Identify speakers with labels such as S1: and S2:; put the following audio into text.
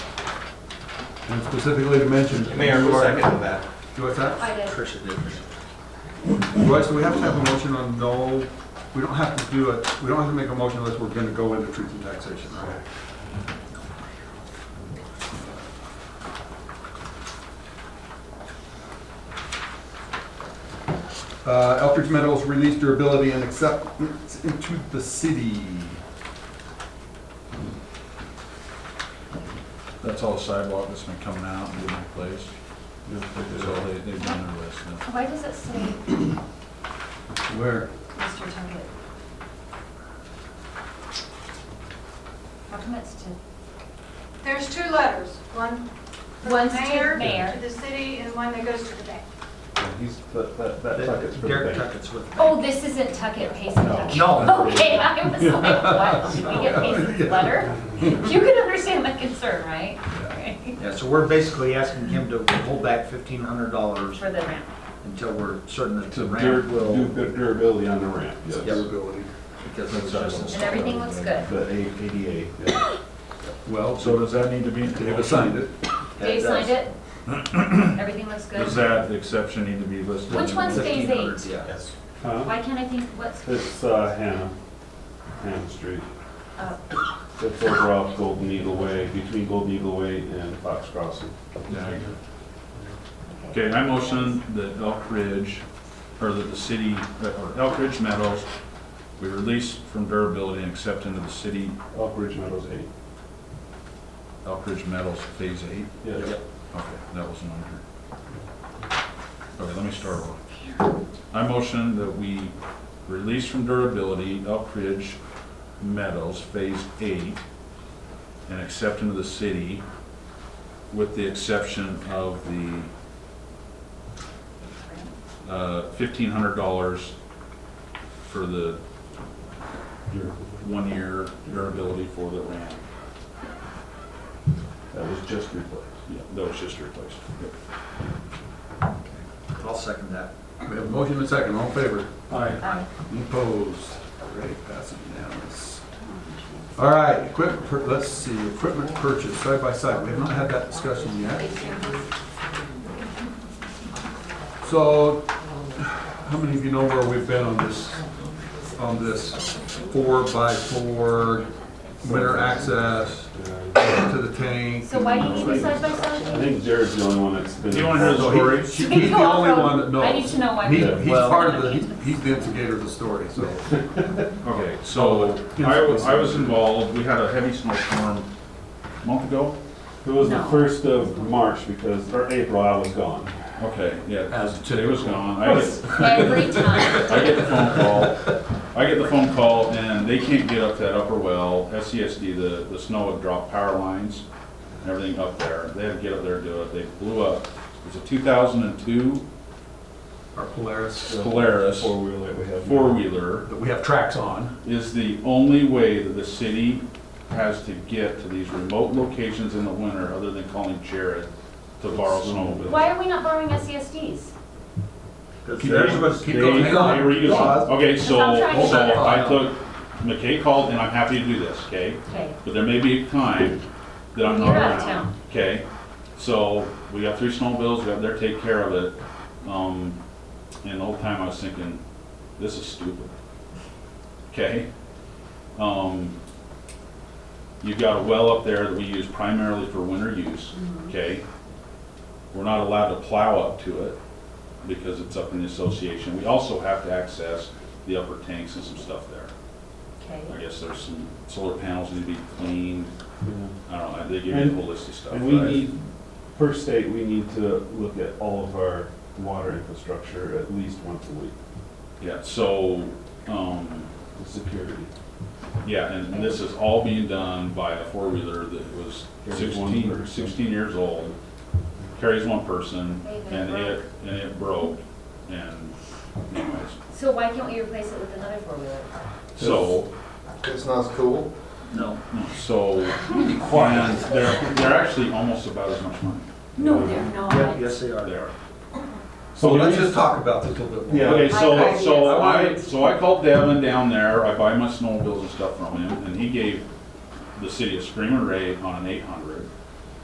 S1: and specifically to mention.
S2: Mayor, who seconded that?
S1: Do I second?
S3: I did.
S4: Tricia did.
S1: Right, so we have to have a motion on no, we don't have to do it, we don't have to make a motion unless we're gonna go into truth and taxation, right? Uh, Elkridge Meadows release durability and acceptance into the city.
S5: That's all sidewalk that's been coming out and being replaced. That's all they, they've done their list now.
S3: Why does it say
S1: Where?
S3: Mr. Template? How come it's to,
S6: There's two letters, one for the
S3: One's to
S6: mayor,
S3: mayor.
S6: to the city, and one that goes to the bank.
S2: He's, that, that, that
S4: Derek Tuckett's with.
S3: oh, this isn't Tuckett Payson Tuckett?
S4: No.
S3: Okay, I was like, what, did we get Payson's letter? You can understand my concern, right? Okay.
S4: Yeah, so we're basically asking him to hold back fifteen hundred dollars
S3: For the ramp.
S4: until we're certain that the
S7: To
S4: ramp
S7: dur- do
S4: will.
S7: good durability on the ramp, yes.
S4: Yep.
S1: Durability.
S4: because it was just
S3: And everything looks good.
S7: The A- ADA, yeah.
S1: Well,
S5: So
S1: so
S5: does that need to be?
S1: they've assigned it.
S4: That
S3: Dave signed
S4: does-
S3: it? Everything looks good?
S5: Does that, the exception need to be listed?
S3: Which one's phase
S4: $1,500,
S3: eight?
S4: Yeah.
S2: Yes.
S7: Huh?
S3: Why can't I think what's,
S7: It's uh, Hannah, Hannah Street.
S3: oh,
S7: It's over off Golden Eagle Way, between Golden Eagle Way and Fox Crossing.
S5: Yeah. Okay, I motion that Elk Ridge, or that the city, uh, or Elk Ridge Meadows, we release from durability and accept into the city
S7: Elk Ridge Meadows 8.
S5: Elk Ridge Meadows Phase Eight.
S7: Yes.
S5: Okay, that was an under. Okay, let me start over. I motion that we release from durability Elk Ridge Meadows Phase Eight and accept into the city with the exception of the uh, fifteen hundred dollars for the one-year durability for the ramp.
S7: That was just replaced.
S5: Yeah, that was just replaced.
S4: I'll second that.
S1: We have a motion and a second, all in favor?
S3: um,
S1: Opposed? All right, pass it unanimous. All right, equipment, pur- let's see, equipment purchase, side by side, we have not had that discussion yet. So, how many of you know where we've been on this, on this four by four winter access to the tank?
S3: so why do you need the side by side?
S7: Uh, I think Jared's the only one that's been.
S5: Do you want to hear the
S1: So he-
S5: story?
S1: she- He's the only one that knows.
S3: I need to know why.
S1: He-
S3: we-
S1: He's part of the, he- he's the instigator of the story, so.
S5: Okay, so I was, I was involved, we had a heavy snowstorm a month ago?
S7: It was the
S3: No.
S7: first of March because, or April, I was gone.
S5: Okay, yeah,
S1: As
S5: today was gone. I get,
S3: Every time.
S5: I get the phone call, I get the phone call and they can't get up that upper well, SCSD, the, the snow had dropped power lines and everything up there. They had to get up there and do it, they blew up. It was a two thousand and two
S1: Our Polaris,
S5: Polaris
S7: Four-wheeler that we have.
S5: four-wheeler.
S1: that we have tracks on.
S5: is the only way that the city has to get to these remote locations in the winter, other than calling Jared to borrow snowmobile.
S3: Why are we not borrowing E SESDs?
S4: Because
S1: Keep
S4: there's
S1: going,
S4: what's-
S1: keep
S5: They-
S1: going, hang on.
S5: they were using- Okay, so,
S3: I'm trying to
S5: so
S3: get it.
S5: I took, McKay called, and I'm happy to do this, okay?
S3: Okay,
S5: But there may be a time that I'm not
S3: You're out of
S5: around,
S3: town.
S5: okay? So, we got three snowmobiles, we got there, to take care of it. Um, and the whole time I was thinking, this is stupid. Okay? Um, you've got a well up there that we use primarily for winter use,
S3: Mm-hmm.
S5: okay? We're not allowed to plow up to it because it's up in the association. We also have to access the upper tanks and some stuff there.
S3: okay.
S5: I guess there's some solar panels need to be cleaned,
S7: Yeah.
S5: I don't know, they give you a whole list of stuff.
S7: And we
S5: right?
S7: need, per state, we need to look at all of our water infrastructure at least once a week,
S5: Yeah, so, um,
S7: the security.
S5: yeah, and and this is all being done by a four-wheeler that was
S7: Carries one
S5: 16
S7: person.
S5: 16 years old, carries one person,
S3: Hey, they
S5: and
S3: broke.
S5: it, and it broke, and anyways,
S3: So why can't we replace it with another four-wheeler?
S5: so.
S2: It's not as cool.
S5: No. So, and they're, they're actually almost about as much money,
S3: No, they're
S4: Yeah,
S3: not.
S4: yes, they are.
S5: they are.
S1: So
S7: we
S1: let's
S7: need-
S1: just talk about this a little bit more.
S7: Yeah.
S5: Okay, so,
S3: I-
S5: so
S1: I-
S5: I, so I called Devin down there, I buy my snowmobiles and stuff from him, and he gave the city a screamer rate on an eight hundred.